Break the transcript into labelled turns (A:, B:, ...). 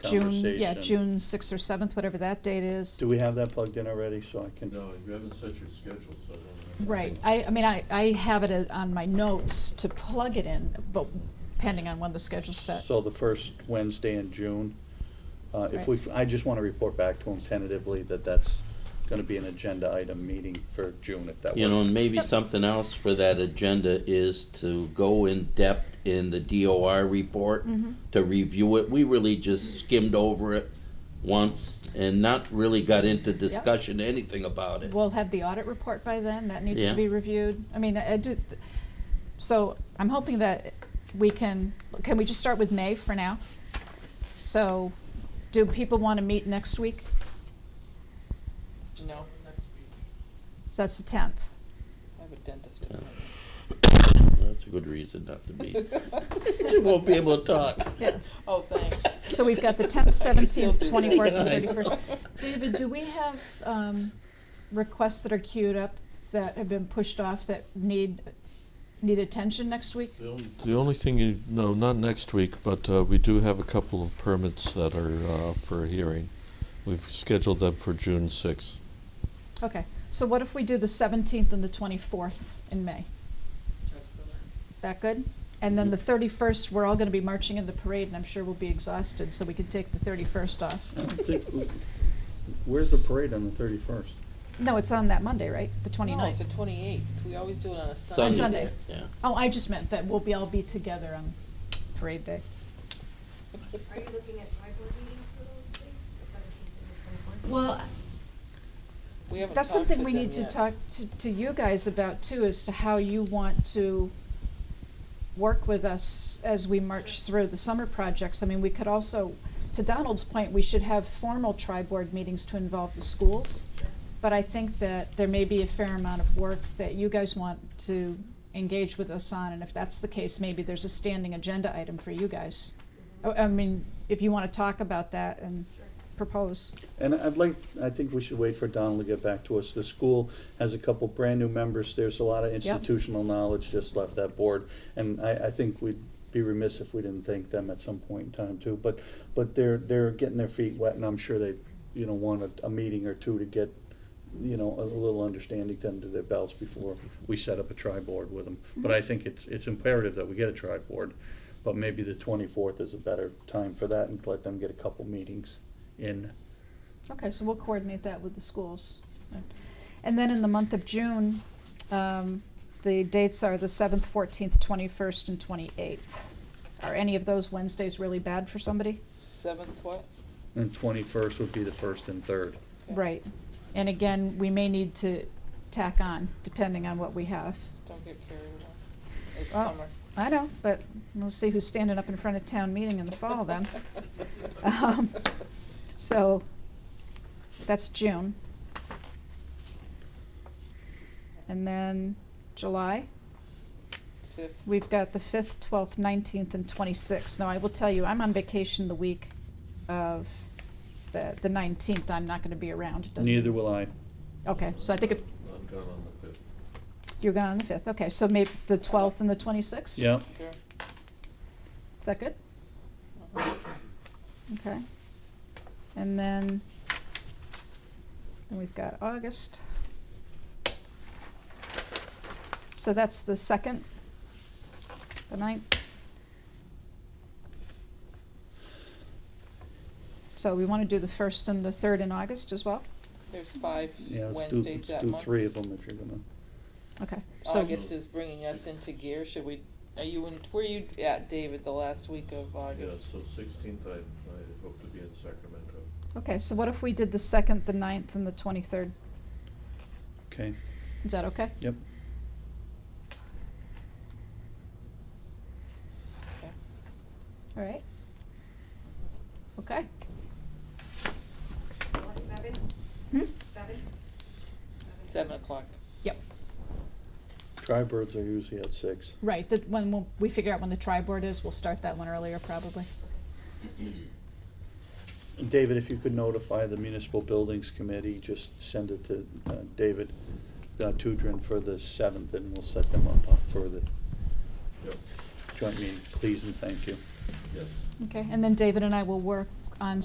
A: June, yeah,
B: conversation.
A: June sixth or seventh, whatever that date is.
B: Do we have that plugged in already, so I can,
C: No, you haven't set your schedule, so. I don't know.
A: Right, I, I mean, I, I have it on my notes to plug it in, but depending on when the schedule's set.
B: so the first Wednesday in June? Uh, if we, I just wanna report back to him tentatively that that's gonna be an agenda item meeting for June, if that works.
D: You know, and maybe something else for that agenda is to go in depth in the DOR report,
A: Mm-hmm.
D: to review it. We really just skimmed over it once and not really got into discussion, anything about it.
A: We'll have the audit report by then, that needs to
D: Yeah.
A: be reviewed. I mean, I I do, so I'm hoping that we can, can we just start with May for now? So, do people want to meet next week?
E: No, next week.
A: So that's the tenth.
E: I have a dentist
D: Yeah.
E: appointment.
D: That's a good reason not to be. You won't be able to talk.
A: Yeah.
E: Oh, thanks.
A: So we've got the tenth, seventeenth,
E: Still do that.
A: twenty-fourth, and thirty-first. David, do we have, um, requests that are queued up that have been pushed off that need, need attention next week?
C: The only-
F: The only thing you, no, not next week, but uh, we do have a couple of permits that are uh, for a hearing. We've scheduled them for June 6th.
A: Okay, so what if we do the seventeenth and the twenty-fourth in May?
E: That's better.
A: That good? And then the thirty-first, we're all gonna be marching in the parade, and I'm sure we'll be exhausted, so we could take the thirty-first off.
B: I think- Where's the parade on the thirty-first?
A: No, it's on that Monday, right? The
E: No, it's
A: twenty-ninth?
E: the twenty-eighth. We always do it on a Sunday.
A: On Sunday.
D: Yeah.
A: Oh, I just meant that we'll be, all be together on parade day.
G: Are you looking at tri board meetings for those things, the seventeenth and the twenty-fourth?
A: Well,
E: We haven't
A: That's
E: talked
A: something
E: to
A: we
E: them
A: need to
E: yet.
A: talk to, to you guys about too, as to how you want to work with us as we march through the summer projects. I mean, we could also, to Donald's point, we should have formal tri-board meetings to involve the schools. But I think that there may be a fair amount of work that you guys want to engage with us on, and if that's the case, maybe there's a standing agenda item for you guys. Oh, I, I mean, if you wanna talk about that and propose.
B: And I'd like, I think we should wait for Donald to get back to us. The school has a couple brand-new members. There's a lot of institutional knowledge just left that board. And I, I think we'd be remiss if we didn't thank them at some point in time too. But, but they're, they're getting their feet wet and I'm sure they, you know, want a, a meeting or two to get, you know, a little understanding done to their belts before we set up a tri-board with them. But I think it's, it's imperative that we get a tri-board. But maybe the twenty-fourth is a better time for that and let them get a couple meetings in.
A: Okay, so we'll coordinate that with the schools. And then in the month of June, um, the dates are the seventh, fourteenth, twenty-first, and twenty-eighth. Are any of those Wednesdays really bad for somebody?
E: Seventh, what?
B: And twenty-first would be the first and third.
E: Okay.
A: Right. And again, we may need to tack on, depending on what we have.
E: Don't get carried away. It's
A: Well,
E: summer.
A: I know, but we'll see who's standing up in front of town meeting in the fall then. Um, So, that's June. And then July?
E: Fifth.
A: We've got the fifth, twelfth, nineteenth, and twenty-sixth. Now, I will tell you, I'm on vacation the week of the, the nineteenth. I'm not gonna be around. It doesn't-
B: Neither will I.
A: Okay, so I think if,
C: I'm gone on the fifth.
A: you're gone on the fifth. Okay, so maybe the twelfth and the twenty-sixth?
B: Yeah,
E: Sure.
A: Is that good?
E: Uh-huh.
A: Okay. And then, then we've got August. So that's the second, the ninth. So we wanna do the first and the third in August as well?
E: There's five
B: yeah, let's do,
E: Wednesdays
B: let's
E: that
B: do
E: month.
B: three of them if you're gonna.
A: Okay, so,
E: August is bringing us into gear. Should we, are you in, where are you at, David, the last week of
C: Yeah,
E: August?
C: so sixteenth, I, I hope to be in Sacramento.
A: okay, so what if we did the second, the ninth, and the twenty-third?
B: Okay,
A: Is that okay?
B: yep.
E: Okay.
A: All right? Okay.
G: What, seven?
A: Hmm?
G: Seven?
E: Seven o'clock.
A: Yep.
B: Tri birds are usually at six.
A: Right, that when we'll- we figure out when the tri-board is, we'll start that one earlier probably.
B: And David, if you could notify the municipal buildings committee, just send it to, uh, David, uh, Tudrin for the seventh and we'll set them up for the
C: Yep,
B: joint meeting. Please and thank you.
C: yes.
A: Okay, and then David and I will work